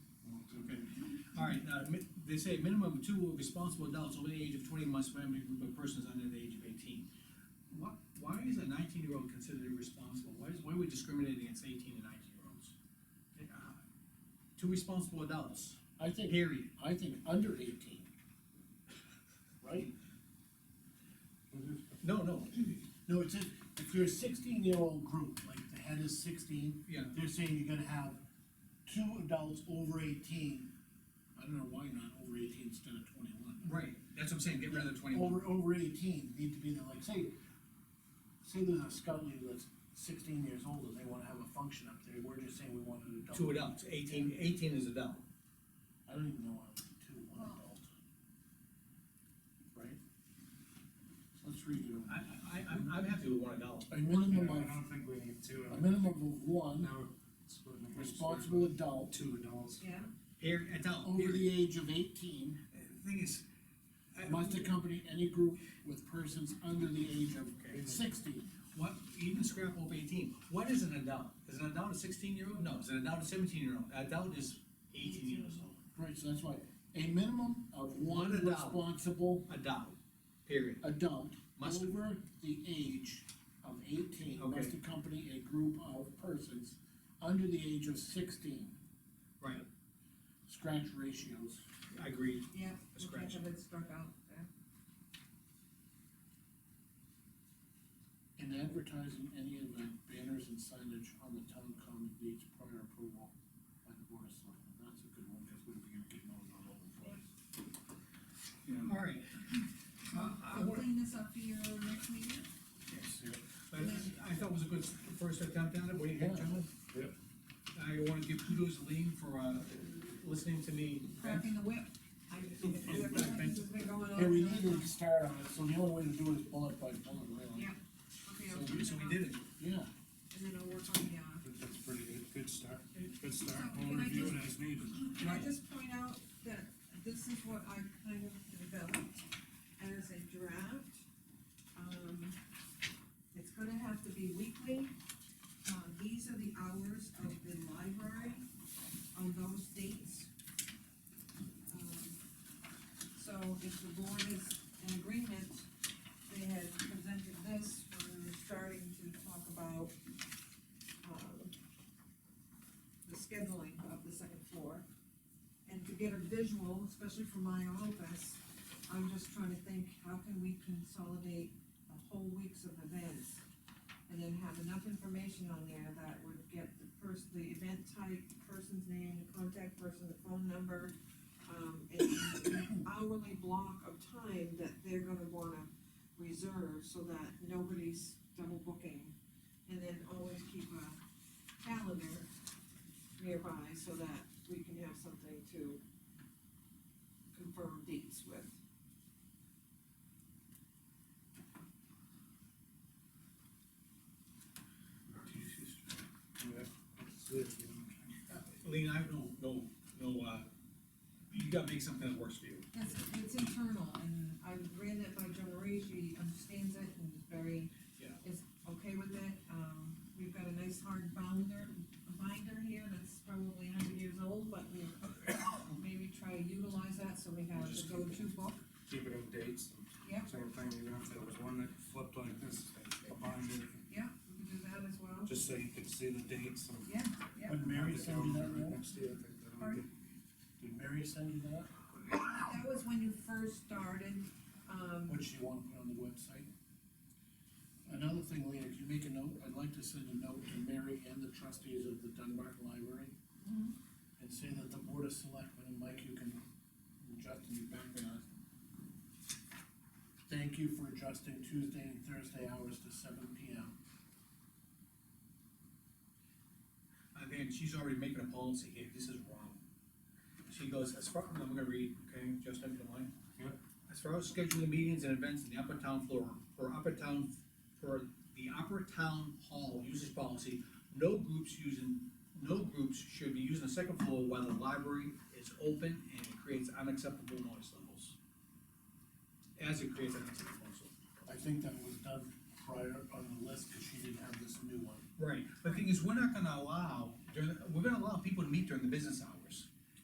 uh, mi- they say minimum of two responsible adults over the age of twenty must remember a group of persons under the age of eighteen. What, why is a nineteen-year-old considered irresponsible? Why is, why are we discriminating against eighteen and nineteen-year-olds? Eh, uh, Two responsible adults, I think, period. I think under eighteen. Right? No, no, No, it's just, if you're a sixteen-year-old group, like the head is sixteen, yeah, they're saying you're gonna have two adults over eighteen. I don't know why not over eighteen instead of twenty-one. right, that's what I'm saying, get rid of the twenty-one. Over, over eighteen, need to be there, like, say, say there's a scout leader that's sixteen years old, and they wanna have a function up there, we're just saying we want an adult. Two adults, 18 18 is adult. I don't even know why we need two, one Well- adult. Right? Let's redo. I, I, I'm, I'm happy with one adult. A Yeah, minimum I of, don't think we need two, a minimum of one now it's splitting hairs. responsible adult Two adults. Yeah, Here, adult, over period. the age of eighteen The Thing is. I- must accompany any group with persons under the age Okay. of sixty. What, even scrap over eighteen, what is an adult? Is an adult a sixteen year old? No, is an adult a seventeen year old? Adult is eighteen years old. Right, so that's why, a minimum of One one adult. responsible Adult, period. adult Must- over the age of eighteen Okay. must accompany a group of persons under the age of sixteen. Right, Scratch ratios. I agree. yeah. Scratch. Have it struck out, yeah. In advertising any of the banners and signage on the town common needs prior approval by the board of selectmen, that's a good one, because we'd be getting those all over the place. All right. Uh, I So wanna- clean this up for your next meeting? But I thought it was a good first attempt at it, what do you think, gentlemen? Yep. I wanna give kudos to Lean for, uh, listening to me. Cracking the whip. I- This has been going on. Hey, we need to start on it, so the only way to do it is bullet by bullet, really. Yeah. Okay, So I'll we, so we did it. Yeah, And then I'll work on the, uh, I think That's pretty good, good start, good So, start, we'll can I review it just- as needed. Can I just point out that this is what I kind of developed as a draft? Um, it's gonna have to be weekly. Uh, these are the hours of the library on those dates. Um, So if the board is in agreement, they had presented this when we were starting to talk about, um, the scheduling of the second floor. And to get a visual, especially for my office, I'm just trying to think, how can we consolidate a whole weeks of events? And then have enough information on there that would get the person, the event type, person's name, the contact person, the phone number, um, and an hourly block of time that they're gonna wanna reserve so that nobody's double booking. And then always keep a calendar nearby so that we can have something to confirm dates with. Yeah, that's it, you know. Lean, I have no, no, no, uh, you gotta make something that works for you. It's, it's internal, and I ran that by Joan Marie, she understands it and is very, Yeah. is okay with it. Um, we've got a nice hard binder, binder here that's probably a hundred years old, but we maybe try to utilize that, so we have the Just- go-to book. Keep it in dates, Yep, same thing, even if there was one that flipped like this, a binder, yep, we can do that as well. just so you could see the dates and. Yeah, yeah. would Mary send you that, Right Mary? next to you, I think that'll Pardon? Did Mary send you that? That was when you first started, um, Which you wanna put on the website? Another thing, Lean, if you make a note, I'd like to send a note to Mary and the trustees of the Dunbar Library. Mhm. And say that the board of selectmen, and Mike, you can, Justin, you back me on. Thank you for adjusting Tuesday and Thursday hours to seven P M. I think she's already making a policy here, this is wrong. She goes, as far, I'm gonna read, okay, just if you mind. Yep. As far as scheduling meetings and events in the upper town floor, for upper town, for the upper town hall uses policy, no groups using, no groups should be using the second floor while the library is open and it creates unacceptable noise levels. As it creates unacceptable noise levels. I think that was done prior on the list, cause she didn't have this new one. Right, but the thing is, we're not gonna allow, during, we're gonna allow people to meet during the business hours.